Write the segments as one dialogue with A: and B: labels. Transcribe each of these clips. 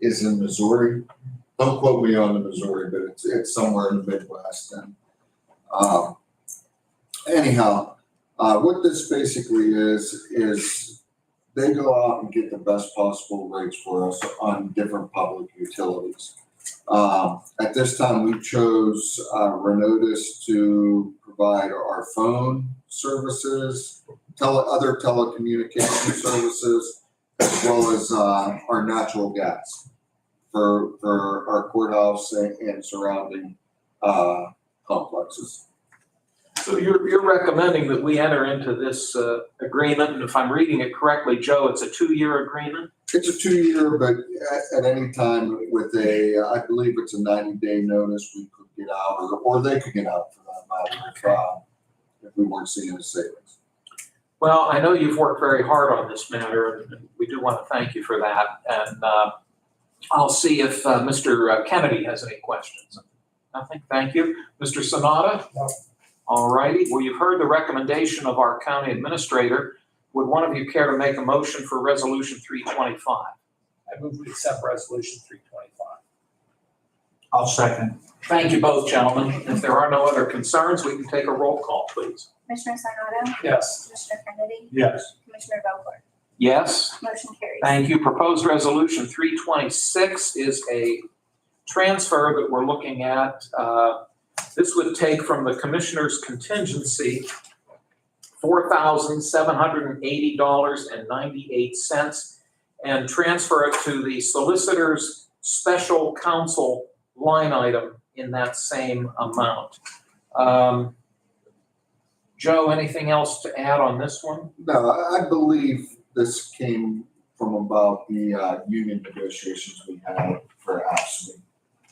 A: is in Missouri. Don't quote me on the Missouri, but it's, it's somewhere in the Midwest and, um, anyhow, uh, what this basically is, is they go out and get the best possible rates for us on different public utilities. Um, at this time, we chose, uh, Renotis to provide our phone services, tele, other telecommunication services, as well as, uh, our natural gas for, for our courthouse and, and surrounding, uh, complexes.
B: So you're, you're recommending that we enter into this uh, agreement, and if I'm reading it correctly, Joe, it's a two-year agreement?
A: It's a two-year, but at, at any time with a, I believe it's a ninety-day notice, we could get out, or, or they could get out for that matter, if, uh, if we weren't seeing a savings.
B: Well, I know you've worked very hard on this matter, and we do want to thank you for that. And uh, I'll see if uh, Mr. Kennedy has any questions. Nothing, thank you. Mr. Sonata?
C: No.
B: All righty, well, you've heard the recommendation of our county administrator. Would one of you care to make a motion for Resolution 325?
C: I move we accept resolution three twenty-five.
D: I'll second.
B: Thank you both, gentlemen. If there are no other concerns, we can take a roll call, please.
E: Commissioner Sanado,
C: Yes.
E: Commissioner Kennedy,
D: Yes.
E: Commissioner Vogler,
B: Yes?
E: motion carries.
B: Thank you. Proposed resolution three twenty-six is a transfer that we're looking at. Uh, This would take from the commissioner's contingency four thousand seven hundred and eighty dollars and ninety-eight cents and transfer it to the solicitor's special counsel line item in that same amount. Um, Joe, anything else to add on this one?
A: No, I I believe this came from about the, uh, union negotiations we had for ASME.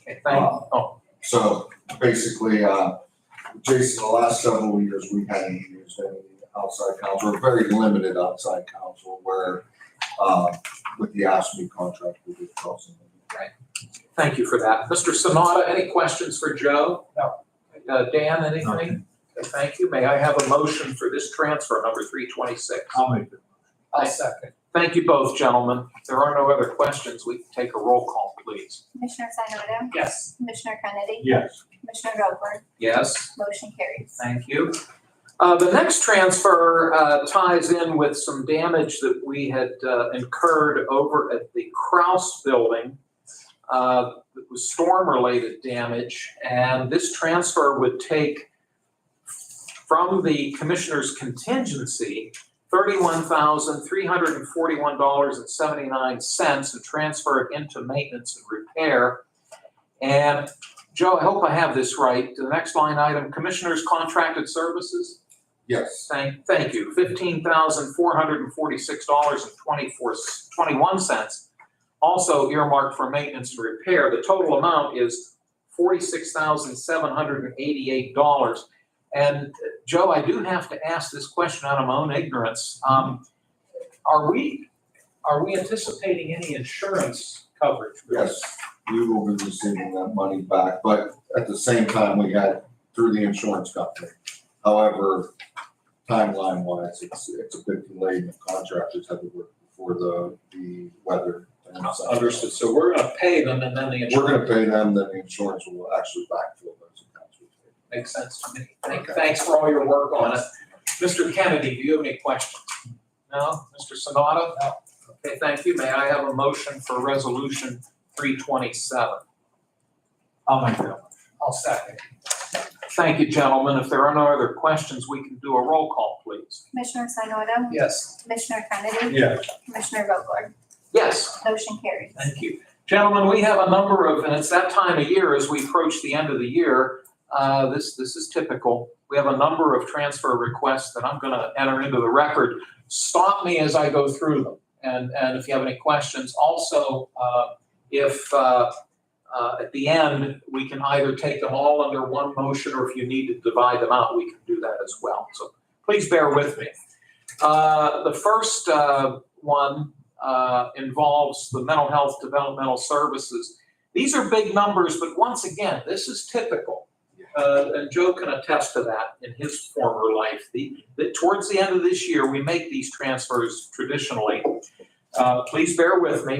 B: Okay, thank,
A: Uh,
B: oh,
A: So basically, uh, Jason, the last several years, we hadn't used any outside counsel, or very limited outside counsel where, uh, with the ASME contract, we did cause some.
B: Thank you for that. Mr. Sanada, any questions for Joe?
C: No.
B: Uh, Dan, anything? Okay, Thank you. May I have a motion for this transfer, number 326?
D: I'll make the
C: I'll second.
B: Thank you both, gentlemen. If there are no other questions, we can take a roll call, please.
E: Commissioner Sanado,
C: Yes.
E: Commissioner Kennedy,
D: Yes.
E: Commissioner Vogler,
B: Yes?
E: motion carries.
B: Thank you. Uh, The next transfer uh, ties in with some damage that we had uh, incurred over at the Kraus Building. uh, That was storm-related damage, and this transfer would take from the commissioner's contingency, $31,341.79, and transfer it into maintenance and repair. And Joe, I hope I have this right. The next line item, Commissioners Contracted Services.
A: Yes,
B: Thank, thank you. Fifteen thousand four hundred and forty-six dollars and twenty-four, twenty-one cents. Also earmarked for maintenance and repair. The total amount is forty-six thousand seven hundred and eighty-eight dollars. And uh, Joe, I do have to ask this question out of my own ignorance. Um, are we, are we anticipating any insurance coverage? for this?
A: yes, we will be receiving that money back, but at the same time, we had through the insurance company. However, timeline wise, it's, it's a bit delayed, and contractors had to work before the, the weather. and such.
B: Understood. So we're gonna pay them and then the insurance.
A: We're gonna pay them, then the insurance will actually backfill those accounts. we paid.
B: Makes sense to me. Thank-
A: Okay.
B: Thanks for all your work on it. Mr. Kennedy, do you have any questions? No? Mr. Sanada?
C: No.
B: Okay, thank you. May I have a motion for Resolution 327?
D: I'll make the
C: I'll second.
B: Thank you, gentlemen. If there are no other questions, we can do a roll call, please.
E: Commissioner Sanado,
C: Yes.
E: Commissioner Kennedy,
D: Yes.
E: Commissioner Vogler,
B: Yes.
E: motion carries.
B: Thank you. Gentlemen, we have a number of, and it's that time of year as we approach the end of the year, uh, this, this is typical. We have a number of transfer requests that I'm going to enter into the record. Stop me as I go through them. And, and if you have any questions, also, uh, if, uh, uh, at the end, we can either take them all under one motion, or if you need to divide them out, we can do that as well. So please bear with me. Uh, The first uh, one uh, involves the mental health developmental services. These are big numbers, but once again, this is typical. Uh, And Joe can attest to that in his former life. The, that towards the end of this year, we make these transfers traditionally. Uh, Please bear with me.